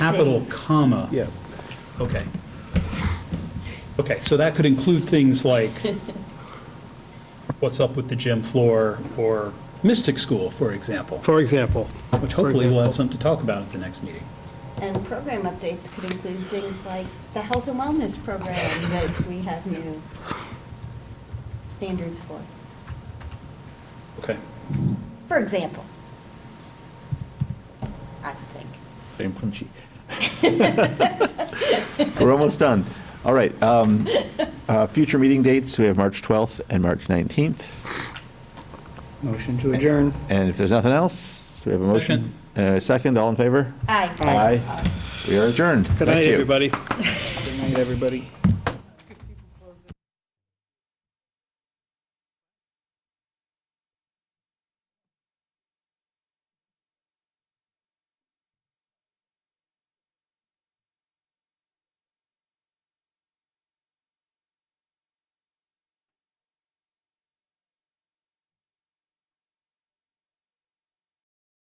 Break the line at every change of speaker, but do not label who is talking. capital
things.
comma.
Yeah.
Okay. Okay, so that could include things like what's up with the gym floor or Mystic School, for example,
For example.
which
for
hopefully we'll have
example.
something to talk about at the next meeting.
And program updates could include things like the health and wellness program that we have new standards for,
Okay.
for example. I think.
Been punchy. We're almost done. All right. um, uh, Future meeting dates, we have March 12th and March 19th.
Motion to adjourn.
And if there's nothing else, we have a motion. Uh, Second, all in favor?
Aye.
Aye. We are adjourned.
Good
Thank
night,
you.
everybody.
Good night, everybody.